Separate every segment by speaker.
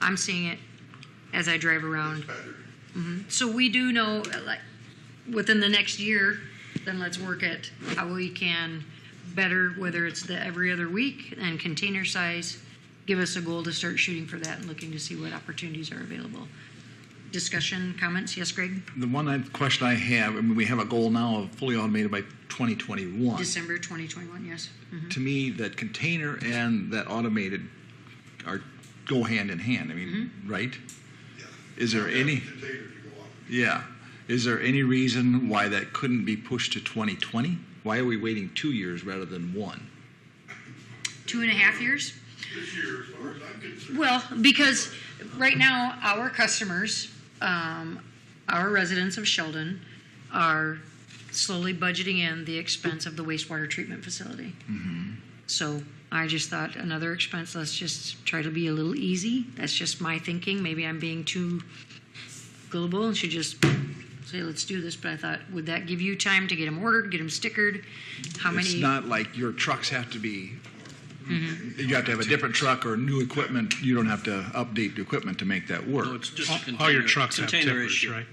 Speaker 1: I'm seeing it as I drive around. Mm-hmm. So we do know, like, within the next year, then let's work at how we can better, whether it's the every other week and container size, give us a goal to start shooting for that and looking to see what opportunities are available. Discussion, comments? Yes, Greg?
Speaker 2: The one I- question I have, I mean, we have a goal now of fully automated by 2021.
Speaker 1: December 2021, yes.
Speaker 2: To me, that container and that automated are, go hand in hand. I mean,
Speaker 1: Mm-hmm.
Speaker 2: right? Is there any,
Speaker 3: Container to go up.
Speaker 2: yeah. Is there any reason why that couldn't be pushed to 2020? Why are we waiting two years rather than one?
Speaker 1: Two and a half years?
Speaker 3: This year, as far as I'm concerned,
Speaker 1: Well, because right now, our customers, um, our residents of Sheldon, are slowly budgeting in the expense of the wastewater treatment facility.
Speaker 2: Mm-hmm.
Speaker 1: So I just thought another expense, let's just try to be a little easy. That's just my thinking. Maybe I'm being too global and should just say, let's do this. But I thought, would that give you time to get them ordered, get them stickered? How many?
Speaker 2: It's not like your trucks have to be,
Speaker 1: Mm-hmm.
Speaker 2: you have to have a different truck or new equipment. You don't have to update the equipment to make that work.
Speaker 4: No, it's just a container.
Speaker 5: All your trucks have
Speaker 4: container
Speaker 5: tippers,
Speaker 4: issue.
Speaker 5: right?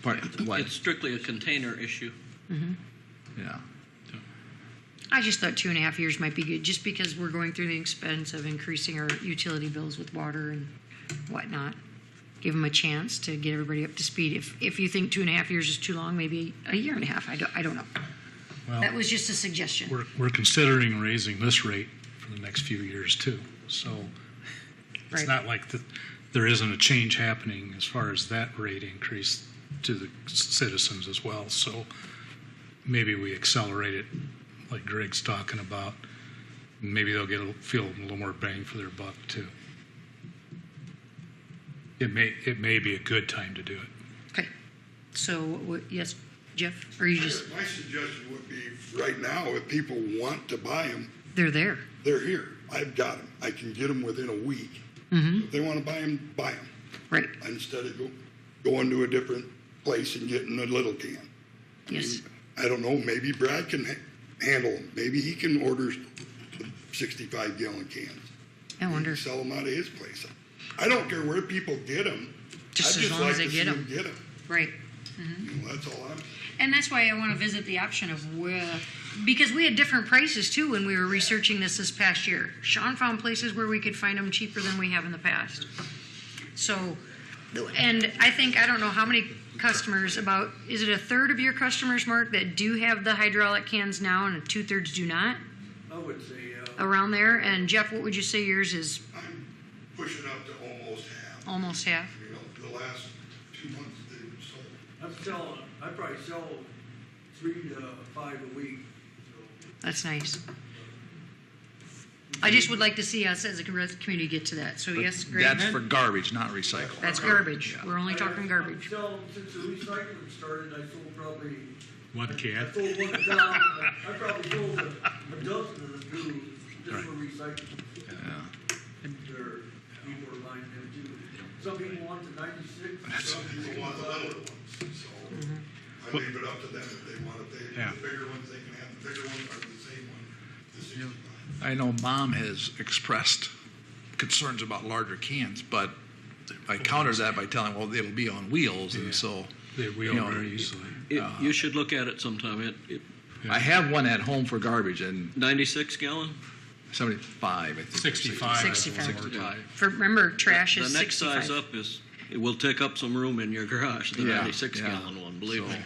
Speaker 2: Part- what?
Speaker 4: It's strictly a container issue.
Speaker 2: Yeah.
Speaker 1: I just thought two and a half years might be good, just because we're going through the expense of increasing our utility bills with water and whatnot. Give them a chance to get everybody up to speed. If, if you think two and a half years is too long, maybe a year and a half, I don't, I don't know. That was just a suggestion.
Speaker 5: We're, we're considering raising this rate for the next few years too. So it's
Speaker 1: Right.
Speaker 5: not like the, there isn't a change happening as far as that rate increase to the citizens as well. So maybe we accelerate it like Greg's talking about. Maybe they'll get, a feel a little more bang for their buck too. It may, it may be a good time to do it.
Speaker 1: Okay. So, what- yes, Jeff, or you just,
Speaker 3: my suggestion would be, right now, if people want to buy them,
Speaker 1: they're there.
Speaker 3: they're here. I've got them. I can get them within a week.
Speaker 1: Mm-hmm.
Speaker 3: If they want to buy them, buy them,
Speaker 1: Right,
Speaker 3: instead of go- going to a different place and getting a little can.
Speaker 1: yes.
Speaker 3: I don't know, maybe Brad can ha- handle them. Maybe he can order 65 gallon cans.
Speaker 1: I
Speaker 3: He
Speaker 1: wonder.
Speaker 3: can sell them out of his place. I don't care where people get them.
Speaker 1: Just as long as they get 'em.
Speaker 3: I'd just like to see 'em get 'em.
Speaker 1: Right.
Speaker 3: You know, that's all I'm.
Speaker 1: And that's why I want to visit the option of where, because we had different prices too when we were researching this this past year. Sean found places where we could find them cheaper than we have in the past. So, and I think, I don't know how many customers, about, is it a third of your customers, Mark, that do have the hydraulic cans now and two thirds do not?
Speaker 6: I would say, uh,
Speaker 1: Around there? And Jeff, what would you say yours is
Speaker 3: I'm pushing up to almost half.
Speaker 1: almost half?
Speaker 3: You know, the last two months they were sold.
Speaker 6: I'm selling, I probably sell three to five a week, so.
Speaker 1: That's nice. I just would like to see us as a community get to that. So yes, Greg?
Speaker 2: That's for garbage, not recycle.
Speaker 1: That's garbage. We're only
Speaker 6: I-
Speaker 1: talking
Speaker 6: I'm
Speaker 1: garbage.
Speaker 6: selling- since the recycling started, I sold probably,
Speaker 5: One
Speaker 6: I
Speaker 5: can.
Speaker 6: sold one down, I I probably sold a a dozen of the new, just for recycling. There, people are buying them too. Some people want the ninety-six, some
Speaker 3: Some people
Speaker 6: people
Speaker 3: want the
Speaker 6: want
Speaker 7: Mm-hmm.
Speaker 3: littler ones, so I leave it up to them if they want it. They,
Speaker 5: Yeah.
Speaker 3: the bigger ones, they can have, the bigger ones are the same one, the sixty-five.
Speaker 2: I know mom has expressed concerns about larger cans, but I counter that by telling, well, it'll be on wheels,
Speaker 5: Yeah.
Speaker 2: and so
Speaker 5: They
Speaker 2: You
Speaker 5: wheel
Speaker 2: know,
Speaker 5: very easily.
Speaker 4: It- You should look at it sometime. It- it-
Speaker 2: I have one at home for garbage and
Speaker 4: 96 gallon?
Speaker 2: seventy-five, I think.
Speaker 5: 65. I
Speaker 1: Sixty
Speaker 5: think,
Speaker 1: five.
Speaker 5: or
Speaker 1: For, remember, trash
Speaker 4: The
Speaker 1: is
Speaker 4: next size
Speaker 1: 65.
Speaker 4: up is, it will take up some room in your garage, the
Speaker 2: Yeah,
Speaker 4: 96
Speaker 2: yeah.
Speaker 4: gallon one, believe me.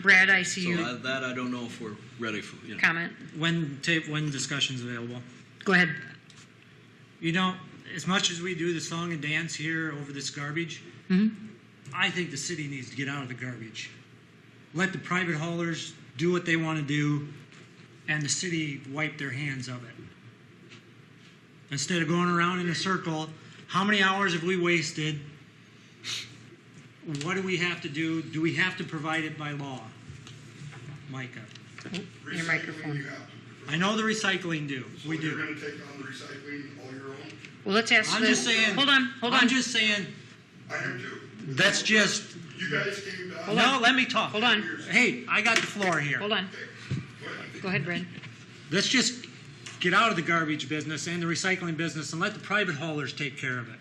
Speaker 1: Brad, I
Speaker 4: So
Speaker 1: see you.
Speaker 4: I- that I don't know if we're ready for, you know.
Speaker 1: Comment.
Speaker 7: when tape when discussion's available.
Speaker 1: Go ahead.
Speaker 7: You know, as much as we do the song and dance here over this garbage, I think the city needs to get out of the garbage. Let the private haulers do what they want to do, and the city wipe their hands of it. Instead of going around in a circle, how many hours have we wasted? What do we have to do? Do we have to provide it by law? Micah.
Speaker 1: Your
Speaker 3: Recycling,
Speaker 1: microphone.
Speaker 3: you have to.
Speaker 7: I know the recycling do. We
Speaker 3: So
Speaker 7: do.
Speaker 3: You're gonna take on the recycling all your own?
Speaker 1: Well, let's ask
Speaker 7: I'm
Speaker 1: the-
Speaker 7: just saying.
Speaker 1: Hold on, hold
Speaker 7: I'm
Speaker 1: on.
Speaker 7: just saying.
Speaker 3: I am too.
Speaker 7: That's just.
Speaker 3: You guys came down.
Speaker 7: No, let me talk.
Speaker 1: Hold on,
Speaker 7: Hey, I got the floor here.
Speaker 1: hold on. Go ahead, Brad.
Speaker 7: Let's just get out of the garbage business and the recycling business and let the private haulers take care of it.